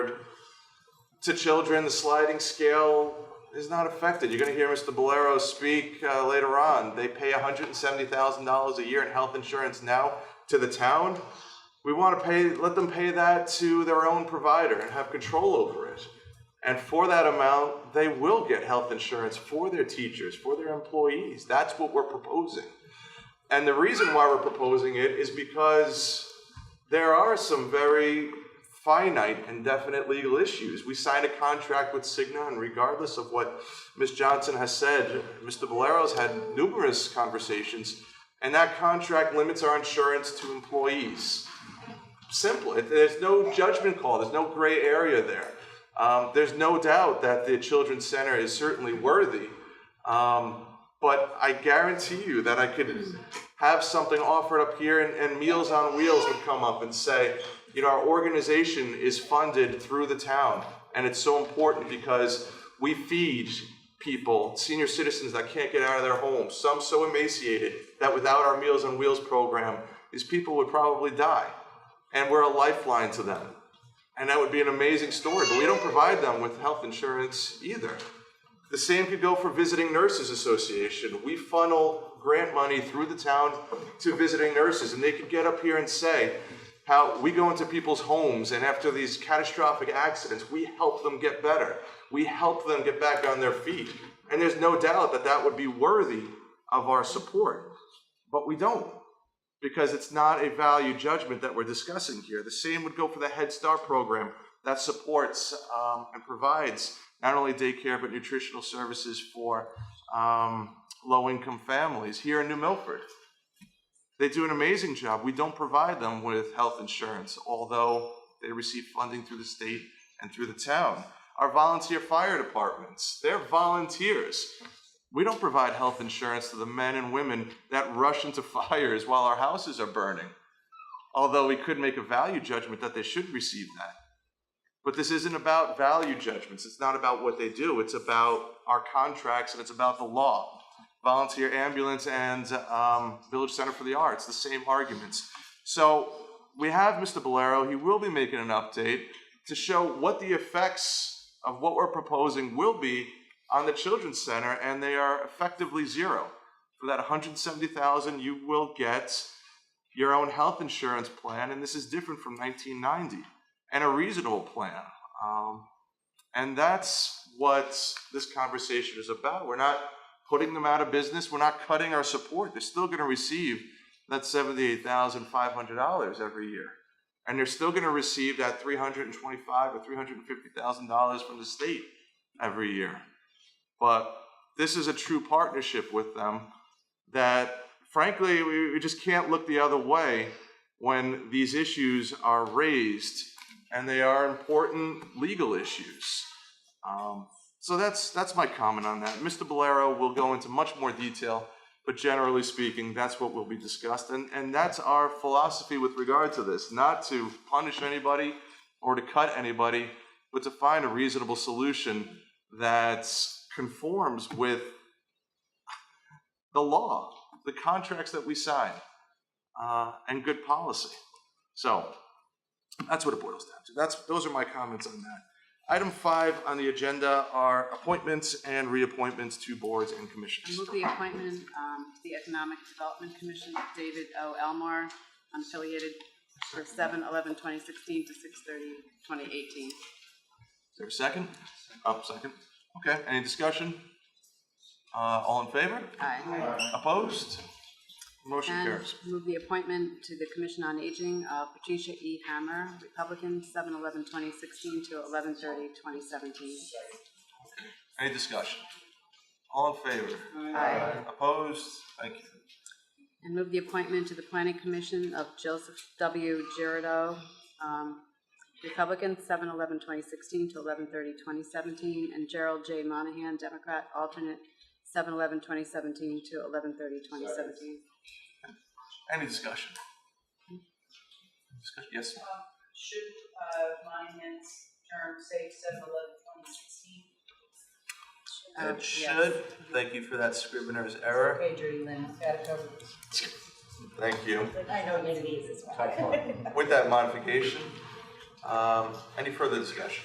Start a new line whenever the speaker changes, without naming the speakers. to children, the sliding scale is not affected. You're going to hear Mr. Bolero speak uh, later on. They pay $170,000 a year in health insurance now to the town. We want to pay, let them pay that to their own provider and have control over it. And for that amount, they will get health insurance for their teachers, for their employees. That's what we're proposing. And the reason why we're proposing it is because there are some very finite and definite legal issues. We signed a contract with Cigna, and regardless of what Ms. Johnson has said, Mr. Bolero's had numerous conversations, and that contract limits our insurance to employees. Simple. It- There's no judgment call, there's no gray area there. Um, there's no doubt that the Children's Center is certainly worthy. Um, but I guarantee you that I could have something offered up here and, and Meals on Wheels would come up and say, you know, our organization is funded through the town. And it's so important because we feed people, senior citizens that can't get out of their homes, some so emaciated that without our Meals on Wheels program, these people would probably die. And we're a lifeline to them. And that would be an amazing story, but we don't provide them with health insurance either. The same could go for Visiting Nurses Association. We funnel grant money through the town to visiting nurses, and they could get up here and say how we go into people's homes, and after these catastrophic accidents, we help them get better. We help them get back on their feet. And there's no doubt that that would be worthy of our support. But we don't because it's not a value judgment that we're discussing here. The same would go for the Head Start program that supports um, and provides not only daycare but nutritional services for um, low income families here in New Milford. They do an amazing job. We don't provide them with health insurance, although they receive funding through the state and through the town. Our volunteer fire departments, they're volunteers. We don't provide health insurance to the men and women that rush into fires while our houses are burning. Although we could make a value judgment that they should receive that. But this isn't about value judgments. It's not about what they do. It's about our contracts and it's about the law. Volunteer ambulance and um, Village Center for the Arts, the same arguments. So we have Mr. Bolero. He will be making an update to show what the effects of what we're proposing will be on the Children's Center, and they are effectively zero. For that 170,000, you will get your own health insurance plan, and this is different from 1990, and a reasonable plan. Um, and that's what this conversation is about. We're not putting them out of business. We're not cutting our support. They're still going to receive that $78,500 every year. And they're still going to receive that $325 or $350,000 from the state every year. But this is a true partnership with them that frankly, we, we just can't look the other way when these issues are raised and they are important legal issues. Um, so that's, that's my comment on that. Mr. Bolero will go into much more detail, but generally speaking, that's what will be discussed. And, and that's our philosophy with regard to this, not to punish anybody or to cut anybody, but to find a reasonable solution that conforms with the law, the contracts that we sign, uh, and good policy. So that's what it boils down to. That's, those are my comments on that. Item five on the agenda are appointments and reappointments to boards and
I
commissions.
move the appointment um, to the Economic Development Commission, of David O. Elmore, unaffiliated for 7/11/2016 to 6/30/2018.
Is there a second? Up, second. Okay, any discussion? Uh, all in favor?
Aye.
Opposed? Motion
And
carries.
move the appointment to the Commission on Aging of Patricia E. Hammer, Republican, 7/11/2016 to 11/30/2017.
Any discussion? All in favor?
Aye.
Opposed? Thank you.
And move the appointment to the Planning Commission of Joseph W. Girardo, um, Republican, 7/11/2016 to 11/30/2017, and Gerald J. Monahan, Democrat, alternate, 7/11/2017 to 11/30/2017.
Any discussion? Discuss- Yes,
Should uh, Monahan's term say seven eleven twenty sixteen?
Uh,
it
yes.
should. Thank you for that scrivener's error.
Okay, Judy Lynn, got it covered.
Thank you.
I know it is as well.
With that modification, Um, Any further discussion?